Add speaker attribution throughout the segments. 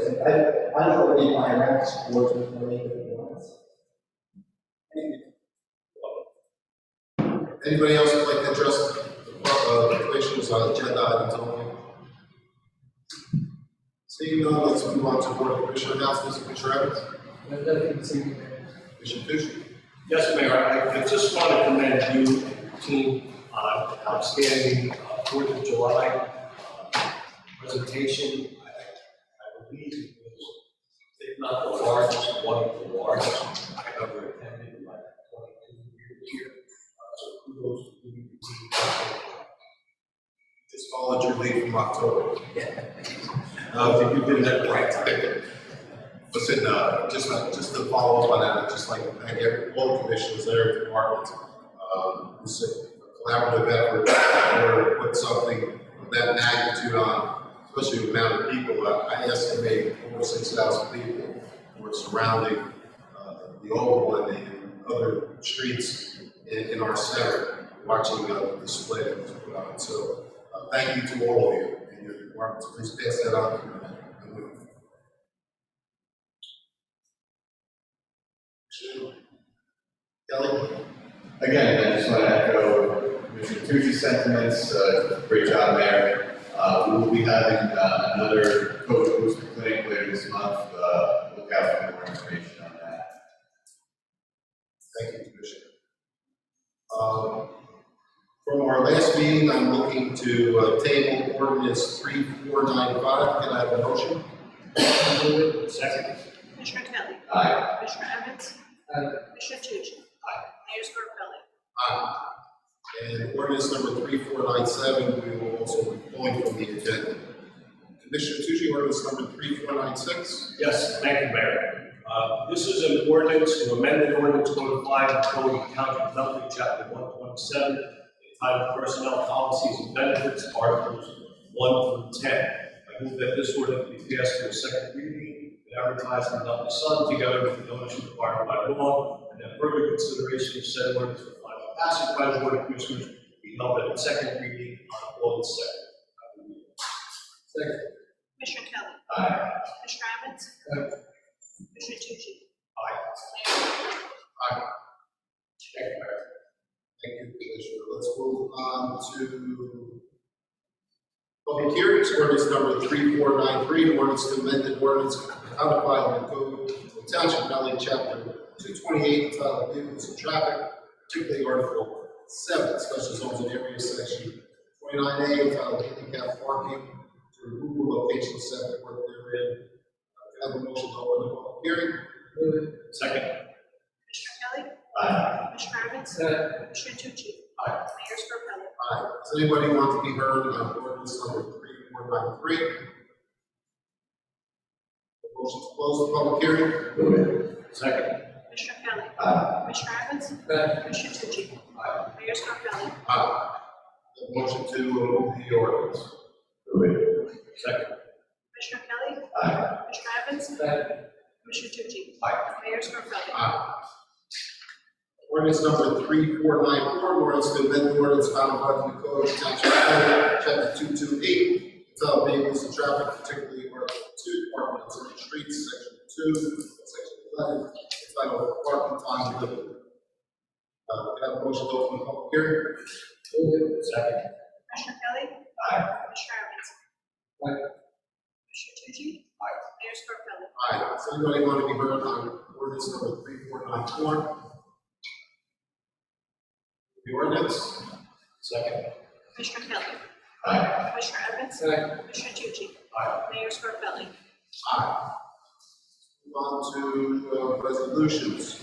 Speaker 1: I, I don't know if my racks work with money if it wants.
Speaker 2: Anybody else would like to address the questions on agenda items only? Seeing none, let's move on to board commission announcements, Commissioner Evans,
Speaker 3: There's nothing this evening, Mayor.
Speaker 2: Commissioner Fisher.
Speaker 4: Yes, Mayor, I I just want to commend you, team, on outstanding uh, Fourth of July uh, presentation. I I believe it was, if not the largest, one of the largest I've ever attended in my twenty-two years here. Uh, So kudos to you, team.
Speaker 2: Just followed your lead from October. Uh, if you did that right time. Listen, uh, just, like- just to follow up on that, I'd just like to thank every, all the commissioners, their departments. Um, it's a collaborative effort, in order to put something of that magnitude on, especially the amount of people. Uh, I I estimate over six thousand people were surrounding, uh, the old one and other streets in, in our center, watching, uh, the display that was put on. So, uh, thank you to all of you and your departments. Please pass that on. to your men. Kelly?
Speaker 5: Again, I just want to echo Commissioner Tucci's sentiments, uh, great job, Mayor. Uh, we will be having, uh, another COVID booster clinic later this month, uh, look out for more information on that.
Speaker 2: Thank you, Commissioner. Um, From our last meeting, I'm looking to uh, table ordinance three four nine five. Can I have a motion?
Speaker 4: Second,
Speaker 6: Commissioner Kelly.
Speaker 5: Aye.
Speaker 6: Commissioner Evans.
Speaker 3: Aye.
Speaker 6: Commissioner Tucci.
Speaker 2: Aye.
Speaker 6: Mayor Scarpelli.
Speaker 2: Aye. And ordinance number three four nine seven, we will also be pulling from the agenda. Commissioner Tucci, ordinance number three four nine six.
Speaker 4: yes, thank you, Mayor. Uh, This is an ordinance to amend the ordinance code five of Code of County of Nutley, chapter one twenty-seven, entitled Personnel Policies and Benefits, Articles one through ten. I move that this ordinance be passed to a second reading and advertised in the Nutley Sun together with the notice required by law, and that further consideration of said ordinance for final passage by the Board of Commissioners be held at its second reading on August second. I move
Speaker 3: Second,
Speaker 6: Commissioner Kelly.
Speaker 5: Aye.
Speaker 6: Commissioner Evans.
Speaker 3: Aye.
Speaker 6: Commissioner Tucci.
Speaker 4: Aye.
Speaker 6: Mayor Scarpelli.
Speaker 4: Thank you, Mayor.
Speaker 2: Thank you, Commissioner. Let's move on to public hearings, ordinance number three four nine three, ordinance to amend the ordinance codified in the code of township Nutley chapter two twenty-eight, entitled vehicles and traffic, particularly article seven, special zones and areas section twenty-nine A, entitled handicap parking, to remove location set forth therein. Uh, Can I have a motion to open the public hearing?
Speaker 3: move it.
Speaker 4: Second,
Speaker 6: Commissioner Kelly.
Speaker 5: Aye.
Speaker 6: Commissioner Evans.
Speaker 3: Aye.
Speaker 6: Commissioner Tucci.
Speaker 4: Aye.
Speaker 6: Mayor Scarpelli.
Speaker 2: Aye. Does anybody want to be heard on ordinance number three four nine three? Motion to close the public hearing?
Speaker 5: Move it.
Speaker 4: second,
Speaker 6: Commissioner Kelly.
Speaker 5: Aye.
Speaker 6: Commissioner Evans.
Speaker 3: Aye.
Speaker 6: Commissioner Tucci.
Speaker 4: Aye.
Speaker 6: Mayor Scarpelli.
Speaker 2: Aye. Uh, The Motion to remove the ordinance?
Speaker 5: Move it.
Speaker 4: second,
Speaker 6: Commissioner Kelly.
Speaker 5: Aye.
Speaker 6: Commissioner Evans.
Speaker 3: Aye.
Speaker 6: Commissioner Tucci.
Speaker 4: Aye.
Speaker 6: Mayor Scarpelli.
Speaker 2: Aye. Ordinance number three four nine four, ordinance to amend ordinance codified in the code of township Nutley, chapter two two eight, entitled vehicles and traffic, particularly article two, parking on certain streets, section two, section eleven, entitled parking time limited. Uh, can I have a motion to open the public hearing?
Speaker 3: Move it.
Speaker 4: second,
Speaker 6: Commissioner Kelly.
Speaker 5: Aye.
Speaker 6: Commissioner Evans.
Speaker 3: Aye.
Speaker 6: Commissioner Tucci.
Speaker 4: Aye.
Speaker 6: Mayor Scarpelli.
Speaker 2: Aye, does anybody want to be heard on ordinance number three four nine four? The ordinance,
Speaker 4: second,
Speaker 6: Commissioner Kelly.
Speaker 5: Aye.
Speaker 6: Commissioner Evans.
Speaker 3: Aye.
Speaker 6: Commissioner Tucci.
Speaker 4: Aye.
Speaker 6: Mayor Scarpelli.
Speaker 2: aye. Move on to uh, resolutions.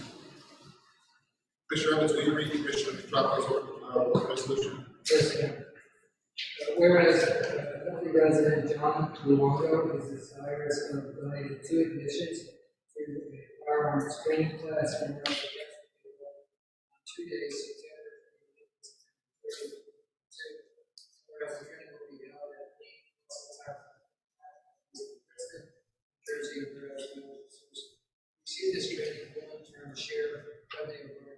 Speaker 2: Commissioner Evans, will you read Commissioner Petracca's uh, resolution?
Speaker 3: Yes, Mayor. Uh, Whereas, uh, Nutley resident John Luongo is desirous of donating two admissions to the firearms training class for North West. on Two days, September thirtieth. Whereas the training will be held at the President, Jersey, whereas the receive this training, long-term share funding award